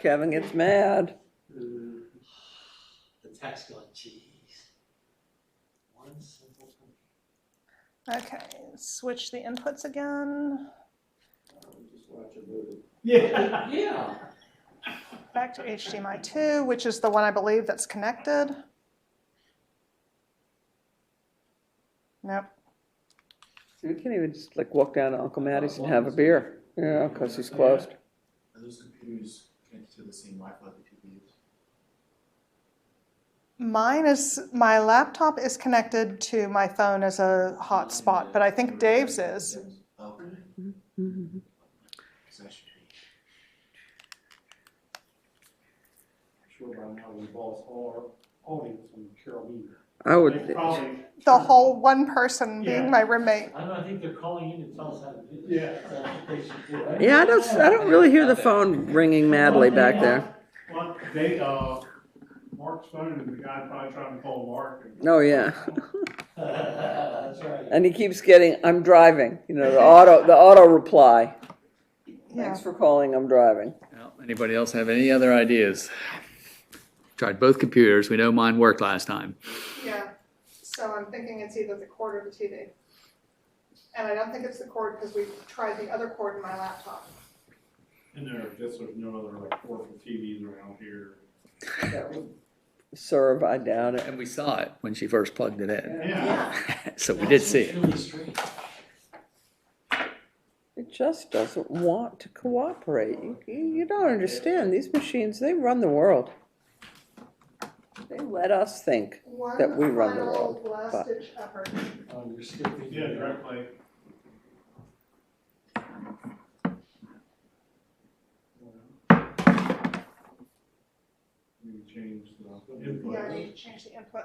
Kevin gets mad. Mm. The tech's going, geez. One simple thing. Okay, switch the inputs again, Yeah. Yeah. back to HDMI two, which is the one I believe that's connected. Nope, You can't even just like walk down to Uncle Mattie's and have a beer. Yeah, because he's closed. Are those computers connected to the same Wi-Fi that people use? mine is, my laptop is connected to my phone as a hotspot, Uh, but I think Dave's is. Okay. So that should be- sure by now we've lost all our audience from Carolina. I They would, probably, The whole one person Yeah. being my roommate. I don't know, I think they're calling in to tell us how to do this. Yeah. That's what they should do, right? yeah, I don't, I don't really hear the phone ringing madly back there. well, they, uh, Mark's phone, and the guy probably trying to call Mark. and- Oh, yeah. That's right. And he keeps getting, I'm driving, you know, the auto, the auto reply. Yeah. Thanks for calling, I'm driving. Well, Anybody else have any other ideas? Tried both computers. We know mine worked last time. Yeah, so I'm thinking it's either the cord or the TV. And I don't think it's the cord because we tried the other cord in my laptop. And there, I guess there's no other like portable TVs around here. That would Serve, I doubt it. And we saw it when she first plugged it in. Yeah, So we did see That's it. really strange. It just doesn't want to cooperate. You, you you don't understand. These machines, they run the world. They let us think. One That we run the final world, but- last ditch effort. Oh, you're skipping. yeah, directly. We change the Yeah, I input. need to change the input.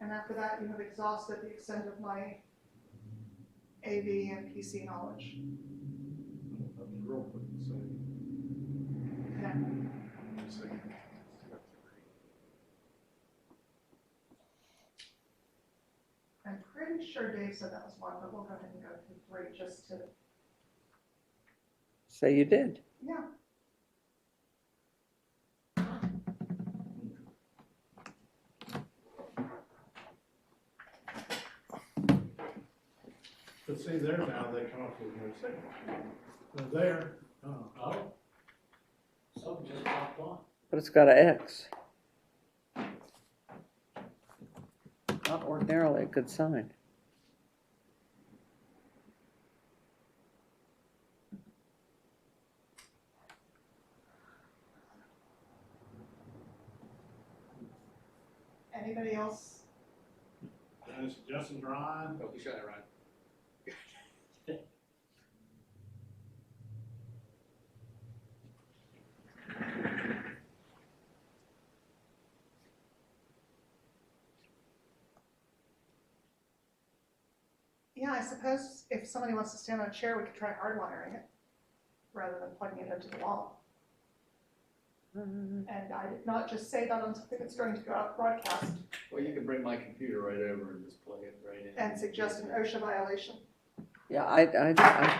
And after that, you have exhausted the extent of my AV and PC knowledge. Real quick, so, And so you- I'm pretty sure Dave said that was one, but we'll go ahead and go through three just to, So you did. yeah. But see, there now, they come up with no signal. They're there, oh. Oh. Something just popped on. But it's got an X. Not ordinarily a good sign. Anybody else? And it's Justin Ryan. We shot it right. Yeah, I suppose if somebody wants to stand on a chair, we could try hardwiring it rather than plugging it into the wall. And I did not just say that on something that's going to go out broadcast Well, you can bring my computer right over and just plug it right in. and suggest an OSHA violation. Yeah, I, I, I,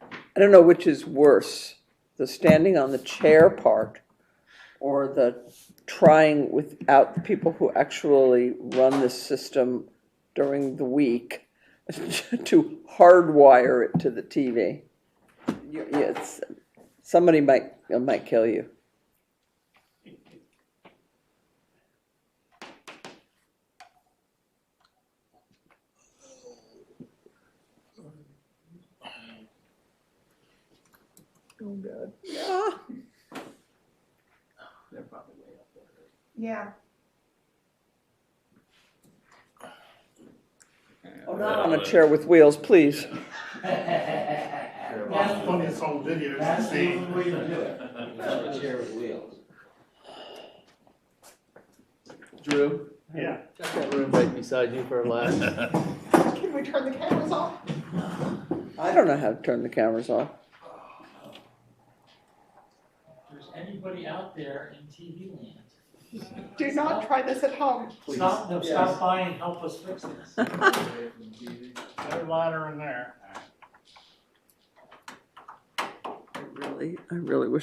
I don't know which is worse, the standing on the chair part or the trying without the people who actually run this system during the week to hardwire it to the TV. You- yeah, It's, somebody might, it might kill you. Oh, God. Yeah. They're probably way up there. Yeah, Oh, not on a chair with wheels, please. That's Funny, it's on video, it's That's the the same. only way to do it. Without a chair with wheels. Drew, Yeah, check that room right beside you for a last. can we turn the cameras off? I don't know how to turn the cameras off. If there's anybody out there in TV land, Do not try this at home. stop, no, Yes. stop by and help us fix this. no ladder in there. It really Sally, I really wish